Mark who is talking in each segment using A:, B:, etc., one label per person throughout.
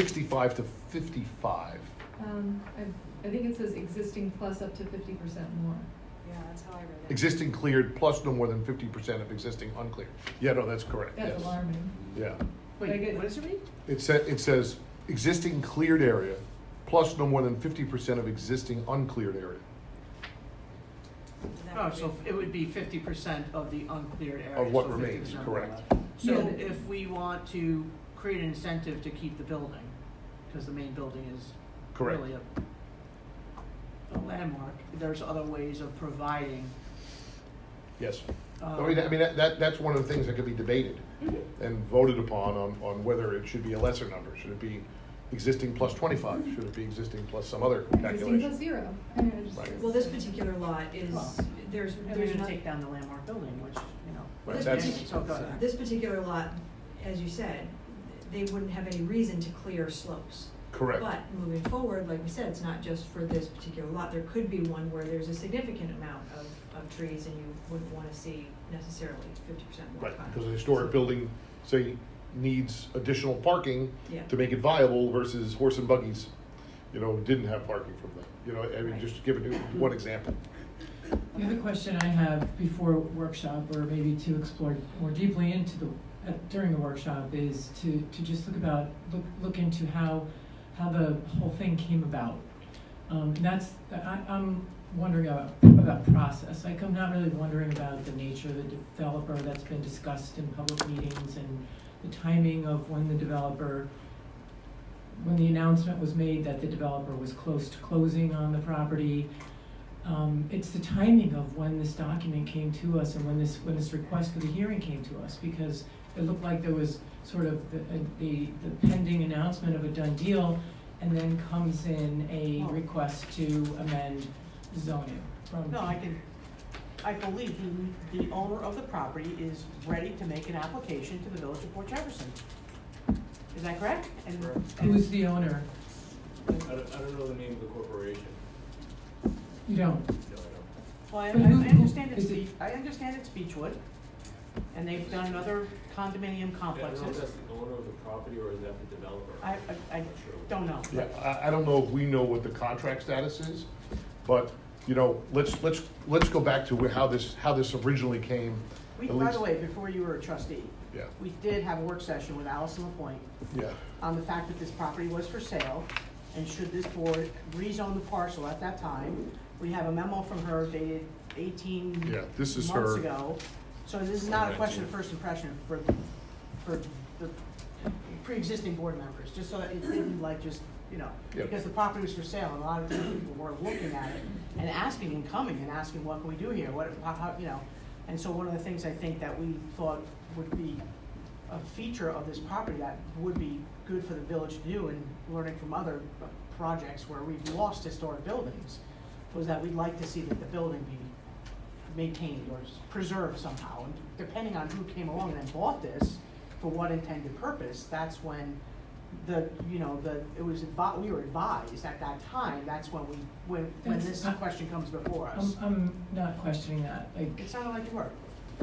A: sixty-five to fifty-five.
B: Um, I, I think it says existing plus up to fifty percent more.
C: Yeah, that's how I read it.
A: Existing cleared plus no more than fifty percent of existing uncleared. Yeah, no, that's correct, yes.
B: That's alarming.
A: Yeah.
B: But I
D: Wait,
B: get-
D: what does it read?
A: It sa- it says, existing cleared area plus no more than fifty percent of existing uncleared area.
C: That
D: Oh,
C: would
D: so
C: be-
D: it would be fifty percent of the uncleared area.
A: Of what
D: so
A: remains,
D: 50%
A: correct.
B: Yeah,
D: So
B: but-
D: if we want to create an incentive to keep the building, because the main building is
A: Correct.
D: really a a landmark, there's other ways of providing.
A: Yes.
D: um,
B: Oh,
A: I mean, I mean, that- that, that's one of the things that could be debated
B: Mm-hmm.
A: and voted upon on, on whether it should be a lesser number. Should it be existing plus twenty-five? Should it be existing plus some other
B: Existing plus
A: calculation?
B: zero. I mean, it just-
A: Right.
C: Well, this particular lot is,
D: Well,
C: there's,
D: And they're
C: there's
D: gonna
C: not,
D: take down the landmark building, which, you know.
A: Right,
C: This
A: that's-
D: So go ahead.
C: this particular lot, as you said, they wouldn't have any reason to clear slopes.
A: Correct.
C: But moving forward, like we said, it's not just for this particular lot, there could be one where there's a significant amount of, of trees and you wouldn't wanna see necessarily fifty percent more.
A: Right,
C: cotton.
A: because a historic building, say, needs additional parking
C: Yeah.
A: to make it viable versus horse and buggies, you know, didn't have parking from that. You know, I mean,
C: Right.
A: just giving you one example.
E: The other question I have before workshop, or maybe to explore more deeply into the, uh, during the workshop, is to, to just look about, look, look into how, how the whole thing came about. Um, and that's, I, I'm wondering about, about process, like, I'm not really wondering about the nature of the developer that's been discussed in public meetings and the timing of when the developer, when the announcement was made that the developer was close to closing on the property, um, it's the timing of when this document came to us and when this, when this request for the hearing came to us, because it looked like there was sort of the, the, the pending announcement of a done deal, and then comes in a request to amend zoning from.
D: No, I can, I believe the, the owner of the property is ready to make an application to the village of Port Jefferson. Is that correct? And- and-
E: Who's the owner?
F: I don't, I don't know the name of the corporation.
E: You don't.
F: No, I
D: Well, I, I
E: But who-
D: I understand it's,
E: is it-
D: Be- I understand it's Beechwood, and they've done other condominium
E: Oh,
F: don't. I don't know if that's
D: complexes.
F: the owner of the property or is that the developer?
D: I, I, I
F: Not sure.
D: don't know.
A: Yeah, I, I don't know if we know what the contract status is, but, you know, let's, let's, let's go back to how this, how this originally came.
D: We,
A: at
D: by
A: least-
D: the way, before you were a trustee,
A: Yeah,
D: we did have a work session with Allison Lapointe
A: yeah,
D: on the fact that this property was for sale, and should this board rezone the parcel at that time. We have a memo from her dated eighteen
A: yeah, this is
D: months
A: her.
D: ago. So this is not a question of first impression for, for the pre-existing board members, just so that it didn't like just, you know,
A: Yeah.
D: because the property was for sale, and a lot of different people were looking at it and asking and coming and asking, what can we do here, what, how, how, you know? And so one of the things I think that we thought would be a feature of this property that would be good for the village to do and learning from other uh, projects where we've lost historic buildings, was that we'd like to see that the building be maintained or preserved somehow. And depending on who came along and bought this, for what intended purpose, that's when the, you know, the, it was, advi- we were advised at that time, that's when we, when, when this
E: That's- um,
D: question comes before
E: I'm,
D: us.
E: I'm not questioning that, like.
D: It sounded like you were.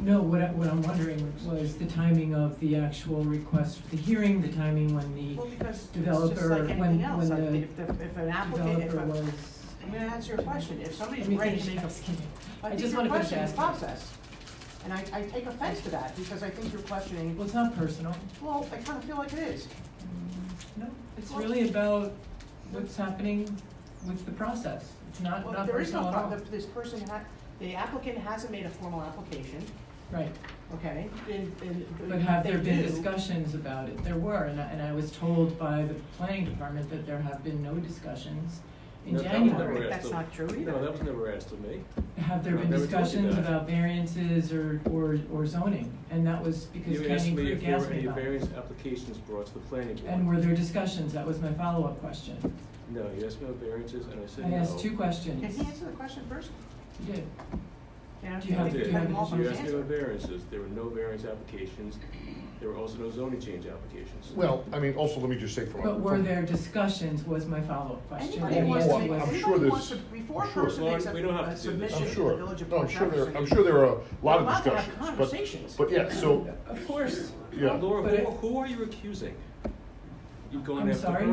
E: No, what I, what I'm wondering was the timing of the actual request for the hearing, the timing when
D: Well,
E: the
D: because it's just
E: Developer,
D: like
E: when-
D: anything else,
E: when
D: like,
E: the
D: if, the- if an applicant, if,
E: developer
D: a-
E: was.
D: I'm gonna answer your question, if somebody's
E: Let me
D: ready
E: finish
D: to make a
E: asking you.
D: I
E: I
D: think
E: just
D: your
E: wanna finish
D: question is
E: asking.
D: process. And I, I take offense to that, because I think you're questioning,
E: Well, it's not personal.
D: well, I kinda feel like it is.
E: No, it's really about what's happening with the process. It's not,
D: Well,
E: not
D: there is no
E: personal at all.
D: problem, this person ha, the applicant hasn't made a formal application,
E: Right,
D: okay? And- and-
E: but have
D: they
E: there been
D: do-
E: discussions about it? There were, and I, and I was told by the planning department that there have been no discussions in
F: No, that was
D: I
E: January.
D: don't think
F: Correct.
D: that's not true
F: No,
D: either.
F: that was never asked of me.
E: Have there
F: No,
E: been
F: they were talking
E: discussions
F: about it.
E: about variances or, or, or zoning? And that was because
F: You asked
E: Canyon
F: me if
E: Creek
F: there were
E: asked me
F: any
E: about it.
F: variance applications brought to the planning board.
E: And were there discussions? That was my follow-up question.
F: No, you asked me about variances and I said
E: I
F: no.
E: asked two
D: Can
E: questions.
D: he answer the question first?
E: You did.
D: Yeah,
E: Do you
F: I
E: have-
D: think
F: did.
E: do
D: you
E: you have
D: him off on
F: You
D: his
F: asked me about
D: answer.
F: variances. There were no variance applications. There were also no zoning change applications.
A: Well, I mean, also, let me just say from. a-
E: But were
A: from-
E: there discussions was my follow-up question.
D: Anybody
E: And the
D: wants to
A: Well,
E: answer
D: make,
A: I'm
E: was-
A: sure
D: anybody wants to,
A: there's-
D: before a
A: I'm sure.
D: person
F: Well,
D: makes a
F: we don't have
D: a
F: to do this.
D: submission
A: I'm
D: to the
A: sure,
D: village of
A: no, I'm
D: Port
A: sure there, I'm
D: Jefferson,
A: sure there are a lot
D: We're allowed
A: of
D: to have
A: discussions,
D: conversations.
A: but, but yeah, so,
E: Of course.
A: yeah.
F: Laura,
E: But
F: who,
E: it-
F: who are you accusing? you've gone
E: I'm
F: after
E: sorry?
F: her